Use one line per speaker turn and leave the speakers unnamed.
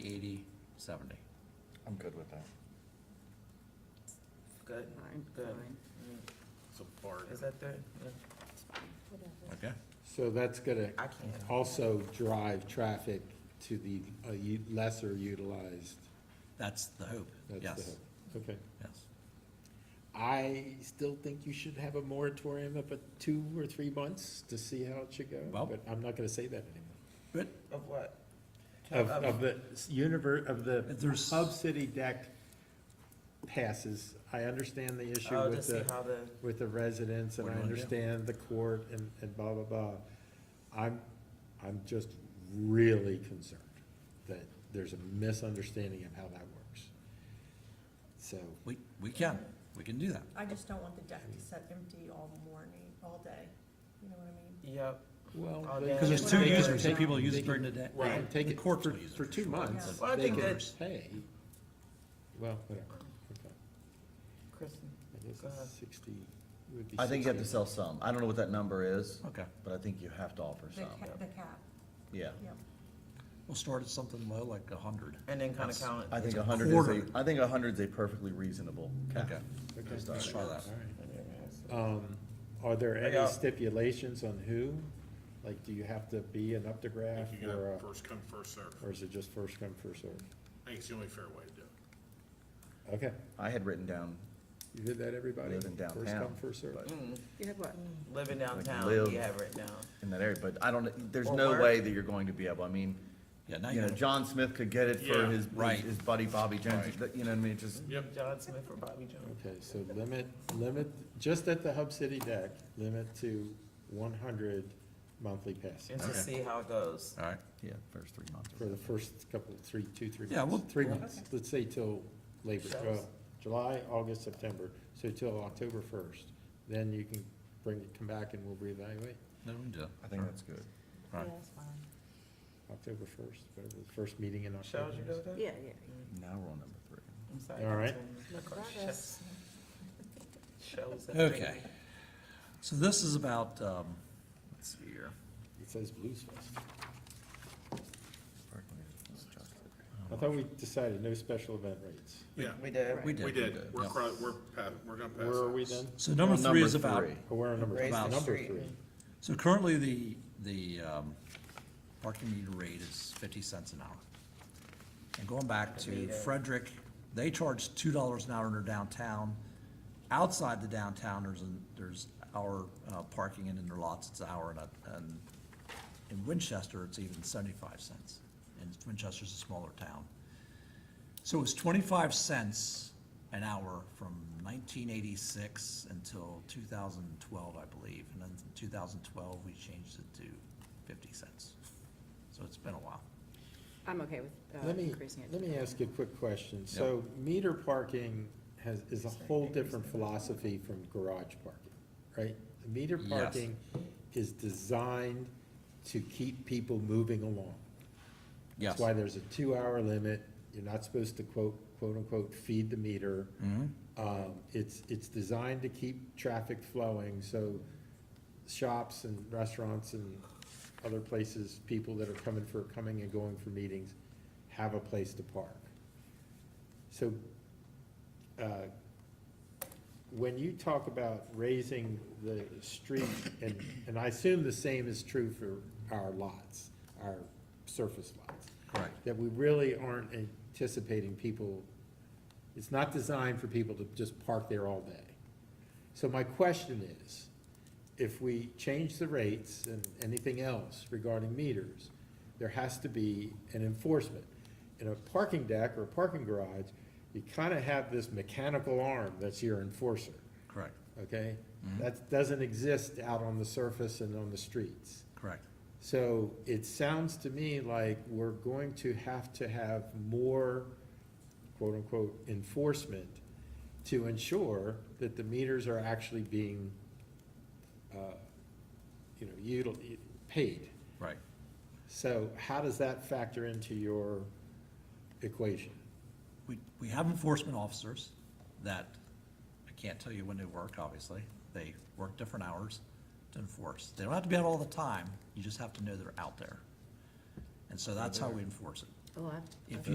eighty, seventy.
I'm good with that.
Good,
Fine,
good.
fine.
Mm,
It's a bargain.
Is that there? Yeah,
Okay,
So that's gonna
I can't.
also drive traffic to the uh, u- lesser utilized.
that's the hope,
that's the
yes,
hope. Okay.
yes.
I still think you should have a moratorium of a two or three months to see how it should
Well-
go, but I'm not gonna say that anymore.
But
Of what?
Of,
um,
Of-
of the universe, of the
There's-
Hub City deck passes. I understand the issue
Oh, to
with
see
the,
how the,
with the residents, and
What
I
do you wanna do?
understand the court and, and blah, blah, blah. I'm, I'm just really concerned that there's a misunderstanding of how that works. So,
we, we can, we can do that.
I just don't want the deck to sit empty all morning, all day, you know what I mean?
yep,
well.
Oh,
they-
yeah.
Because there's two
they can
users, some
take-
people use
they
it during the
can-
day.
They can take
The
it for,
courts will use it
for two
sure.
months.
Well, I
They
think
can
that-
Pay, well, whatever, okay.
Kristen,
I guess
Go ahead.
it's sixty, it would be
I think you have to
60.
sell some. I don't know what that number is,
Okay,
but I think you have to offer
The
some.
cap, the cap,
Yeah.
yep.
we'll start at something low, like a hundred.
and then kind of
That's-
count.
I
it.
think
It's a
a hundred is
quarter.
a, I think a hundred's a perfectly reasonable cap.
Okay,
Okay.
Just
let's try that.
All right. Um, are there
I
any
got-
stipulations on who? Like, do you have to be an
I
uptograph
think you
or,
gotta
a-
first come, first serve.
or is it just first come, first served?
I think it's the only fair way to do it.
Okay,
I had written down,
you hear that, everybody?
Living
First
downtown,
come, first served.
but
You have what?
Mm-hmm. Living
Like
downtown,
live.
you have it down.
in that area, but I don't, there's
Or
no
work.
way that you're going to be able, I mean,
yeah, now
you
you
know, John Smith could get it for
Yeah.
his,
Right.
his buddy Bobby Jones, but, you know what I mean, It just,
Yep,
John Smith or Bobby Jones.
Okay, so limit, limit, just at the Hub City deck, limit to one hundred monthly passes
And to
Okay.
see how it goes.
all right,
yeah, first three months.
for the first couple, three, two, three months.
Yeah, we'll-
Three
we'll-
months, let's say till Labor,
Sure.
well, July, August, September, so till October first. Then you can bring it, come back and we'll reevaluate.
then we can do that.
I think that's good.
All right.
that's fine.
October first, whatever, the first meeting in
Shall
October.
you
is.
go there?
Yeah, yeah.
Now we're on number three.
I'm sorry.
All right.
Look
Of course,
at us.
Shows. that they-
Okay. So this is about, um, let's see here.
It says Blues Fest. I
Um,
thought we decided no special event rates.
yeah,
We did.
Right.
We
we
did.
did. We're,
yeah.
cro- we're, pa- we're gonna pass.
Where are
it.
we then?
So number
Well,
three is about
three.
Oh, we're on number,
Raise
the
number
street.
three.
So currently, the, the um, parking meter rate is fifty cents an hour. And going back to
Meter.
Frederick, they charge two dollars an hour in their downtown. Outside the downtown, there's, an- there's hour uh, parking, and in their lots, it's an hour, and, a- and in Winchester, it's even seventy-five cents. And Winchester's a smaller town. So it was twenty-five cents an hour from nineteen eighty-six until two thousand and twelve, I believe. And then in two thousand and twelve, we changed it to fifty cents. So it's been a while.
I'm okay with uh,
Let me,
increasing it.
let me ask you a quick question. So meter parking has, is a whole different philosophy from garage parking, right? The Meter
Yes.
parking is designed to keep people moving along. That's why there's a two-hour limit. You're not supposed to quote, quote-unquote, feed the meter.
Mm-hmm.
Um, It's, it's designed to keep traffic flowing, so shops and restaurants and other places, people that are coming for, coming and going for meetings, have a place to park. So, uh, when you talk about raising the street, and, and I assume the same is true for our lots, our surface lots,
Correct.
that we really aren't anticipating people, it's not designed for people to just park there all day. So my question is, if we change the rates and anything else regarding meters, there has to be an enforcement. In a parking deck or a parking garage, you kind of have this mechanical arm that's your enforcer,
Correct,
okay? That doesn't exist out on the surface and on the streets.
correct.
So it sounds to me like we're going to have to have more quote-unquote enforcement to ensure that the meters are actually being, uh, you know, util, paid.
Right.
So how does that factor into your equation?
We, we have enforcement officers that, I can't tell you when they work, obviously. They work different hours to enforce. They don't have to be out all the time. You just have to know they're out there. And so that's how we enforce it.
Oh, I-
If